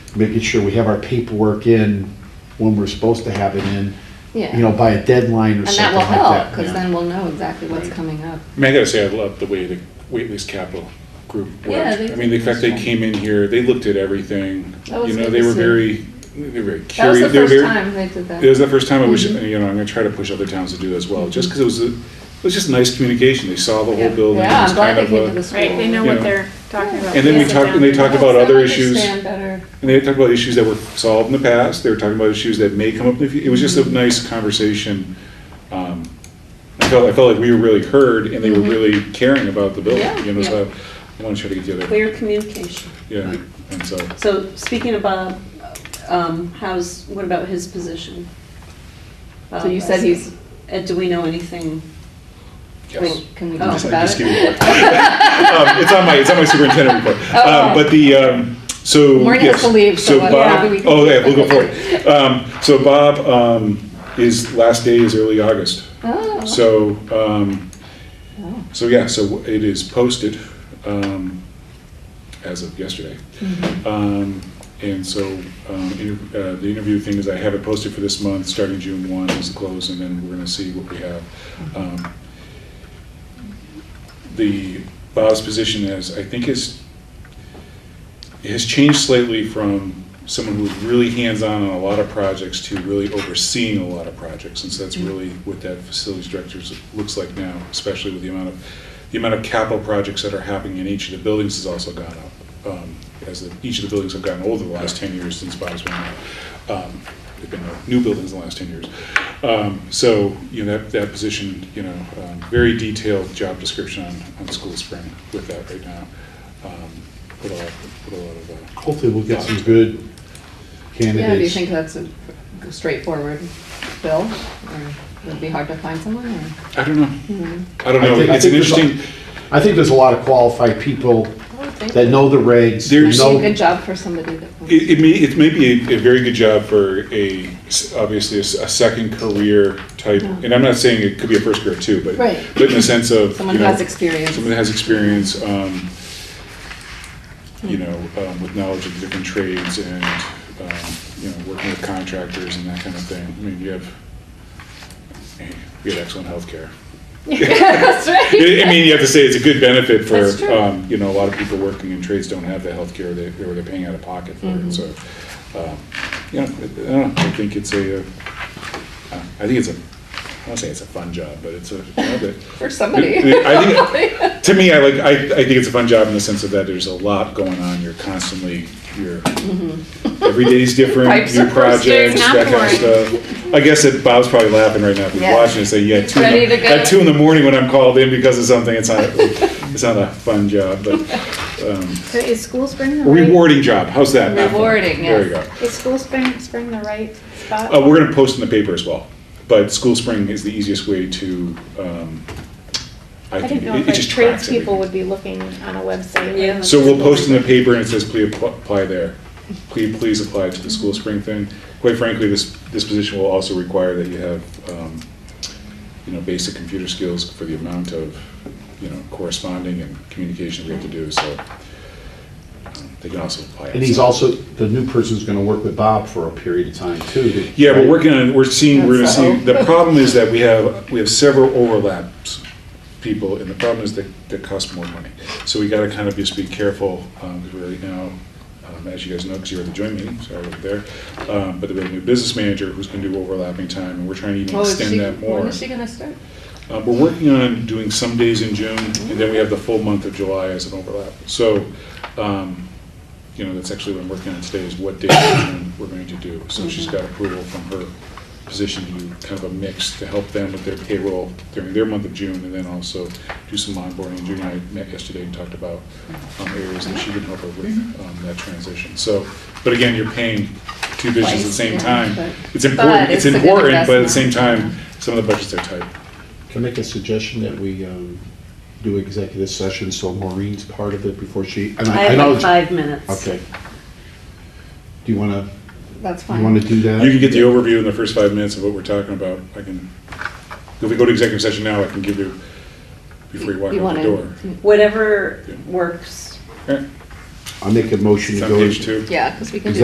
making sure we have our paperwork in when we're supposed to have it in, Yeah. you know, by a deadline or And that something will like help, that. because yeah. then we'll know exactly what's Right. coming up. I mean, I gotta say, I love the way the Waitley's Capital Group Yeah, worked. they I mean, the did. fact they came in here, they looked at everything. That was You know, good they to were see. very, they were very That was the curious. they were first very- time Mm-hmm. they did It was that. the first time I wish, you know, I'm gonna try to push other towns to do that as well, just because it was, a- it was just nice communication. They saw the Yeah. whole building. Yeah, It was I'm glad kind they of came to a- the school. Right, they know You what know. they're talking about. And then we Sit talked- down. and they talked about other issues. Understand better. And they talked about issues that were solved in the past, they were talking about issues that may come up in the future, it was just a nice conversation. Um, I felt, I felt like we were really heard and they were really caring about the Mm-hmm. Yeah, building, you know, yeah. so I want to try to get the other, Clear communication. yeah, and so. So speaking of Bob, um, how's, what about his position? Um, So you said he's, Uh, Do we know anything? wait, can we Oh. talk Just- about just give me it? a look. Um, It's on my, it's on my superintendent report. Oh, Um, But the, um, so. Maureen has yes. to leave, so what- Bob- maybe we can- Oh, yeah, we'll go for it. Um, So Bob, um, his last day is early August. Oh, So, um, Oh. so yeah, so it is posted, um, as of yesterday. Um, and so, um, inter- uh, the interview thing is I have it posted for this month, starting June one is the close, and then we're gonna see what we have. Um, The, Bob's position is, I think is, has changed slightly from someone who's really hands-on on a lot of projects to really overseeing a lot of projects, and so that's really what that facilities director looks like now, especially with the amount of, the amount of capital projects that are happening in each of the buildings has also gone up, um, as the- each of the buildings have gotten older the last ten years since Bob's been there. Um, There've been no new buildings in the last ten years. Um, So, you know, that, that position, you know, um, very detailed job description on, on School Spring with that right now. Um, Put a lot, put a lot of uh, Hopefully we'll get some good yeah, do you candidates. think that's a straightforward bill? Or would it be hard to find someone? or- I don't know. Mm-hmm. I don't I know. think- I It's an think there's a- interesting, I think there's a lot of qualified people that know the regs, There's- Actually, a know, good job for somebody that. it it may, it may be a- a very good job for a, s- obviously, a s- a second career type. And I'm not saying it could be a first career too, but, Right. but in the sense of. Someone you who know, has experience. Someone that has experience, um, you Mm-hmm. know, um, with knowledge of different trades and, um, you know, working with contractors and that kind of thing. I mean, you have, you have excellent healthcare. That's right. I I mean, you have to say it's a good benefit for, That's true. um, you know, a lot of people working in trades don't have the healthcare they, or they're paying out of pocket for Mm-hmm. it, so. um, You know, I- I don't know, I think it's a, uh, I think it's a, I don't say it's a fun job, but it's a, you know, but- For somebody. I think, to me, I like, I, I think it's a fun job in the sense of that there's a lot going on, you're constantly, you're, every day's different, Mm-hmm. Pipes new are bursting. projects, that kind of stuff. I guess that Bob's probably laughing right now, if he's Yeah. watching and saying, yeah, two, Ready in to the- go. at two in the morning when I'm called in because of something, it's not, it's not a fun job, but, um, So is school spring the a right? rewarding job, how's that? Not fun. Rewarding, There you yes. go. Is school spring, spring the right spot? Uh, we're gonna post in the paper as well, but School Spring is the easiest way to, um, I I think, didn't know it if it like just tracks tradespeople everything. would be looking on a website. Yeah. and- So we'll post in the paper and it says, please appl- apply there. Please, please apply to the school spring thing. Quite frankly, this, this position will also require that you have, um, you know, basic computer skills for the amount of, you know, corresponding and communication we have to do, so. um, They can also apply. and he's outside. also, the new person's gonna work with Bob for a period of time too. to- Yeah, we're working on, we're seeing, we're gonna That's the see, hope. the problem is that we have, we have several overlaps people, and the problem is that they cost more money. So we gotta kind of just be careful, um, because we're right now, um, as you guys know, because you were at the joint meeting, so I wasn't there. Um, but we have a new business manager who's gonna do overlapping time, and we're trying to even Well, Oh, is she- extend that more. When is she gonna start? Uh, We're working on doing some days in June, Mm-hmm. and then we have the full month of July as an overlap. So, um, you know, that's actually what I'm working on today, is what days in June we're going to do. Mm-hmm. So she's got approval from her position to do kind of a mix to help them with their payroll during their month of June, and then also do some onboarding. June and I met yesterday and talked about um, areas that she can help her with Mm-hmm. um, that transition. So, but again, you're paying two visions at the same Twice, time. yeah, but- It's important, But it's it's a good important, but at the same investment. time, some of the budgets are tight. Can I make a suggestion that we um, do executive session so Maureen's part of it before she? and I I have know like five minutes. Okay. Do you want to, That's you want fine. to do that? You can get the overview in the first five minutes of what we're talking about. I can, if we go to executive session now, I can give you, before you walk You out wanna- the door. Whatever works All right, I'll make a motion to It's go. on page two. Yeah, because we can do